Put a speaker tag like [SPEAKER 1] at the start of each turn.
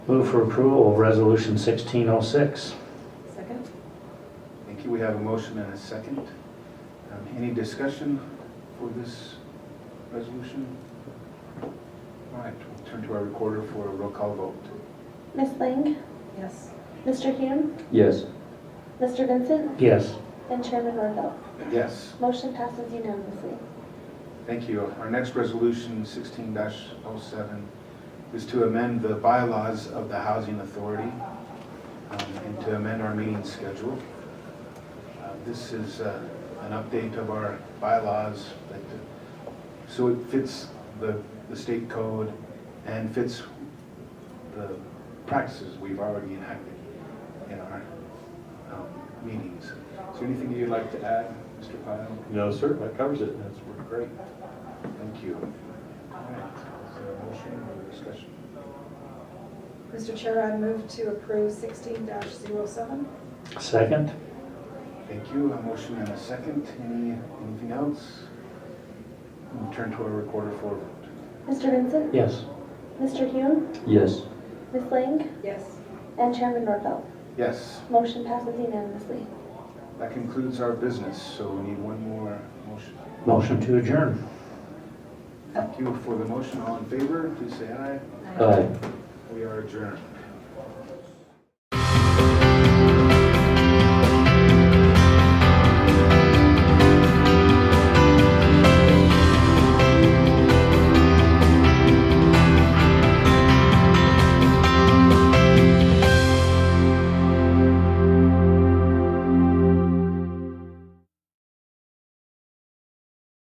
[SPEAKER 1] Move for approval of Resolution 1606.
[SPEAKER 2] Second?
[SPEAKER 3] Thank you. We have a motion and a second. Um, Any discussion for this resolution? All right, we'll turn to our recorder for a roll call vote.
[SPEAKER 4] Miss Lang,
[SPEAKER 2] Yes.
[SPEAKER 4] Mr. Hume,
[SPEAKER 5] Yes.
[SPEAKER 4] Mr. Vincent,
[SPEAKER 1] Yes.
[SPEAKER 4] and Chairman Norville.
[SPEAKER 3] Yes,
[SPEAKER 4] Motion passes unanimously.
[SPEAKER 3] thank you. Our next resolution, 16-07, is to amend the bylaws of the Housing Authority um, and to amend our meeting schedule. Uh, This is uh, an update of our bylaws that, uh, so it fits the, the state code and fits the practices we've already enacted in our um, meetings. Is there anything you'd like to add, Mr. Pyle?
[SPEAKER 5] No, sir, that covers it. That's great.
[SPEAKER 3] Thank you. All right, is there a motion or discussion?
[SPEAKER 2] Mr. Chair, I move to approve 16-07.
[SPEAKER 1] Second?
[SPEAKER 3] Thank you, a motion and a second, any, anything else? We'll turn to our recorder for a vote.
[SPEAKER 4] Mr. Vincent,
[SPEAKER 1] Yes.
[SPEAKER 4] Mr. Hume,
[SPEAKER 5] Yes.
[SPEAKER 4] Miss Lang,
[SPEAKER 2] Yes.
[SPEAKER 4] and Chairman Norville.
[SPEAKER 3] Yes,
[SPEAKER 4] Motion passes unanimously.
[SPEAKER 3] that concludes our business, so we need one more motion.
[SPEAKER 1] Motion to adjourn.
[SPEAKER 3] Thank you for the motion, all in favor, please say aye.
[SPEAKER 1] Uh,
[SPEAKER 5] Aye.
[SPEAKER 3] We are adjourned.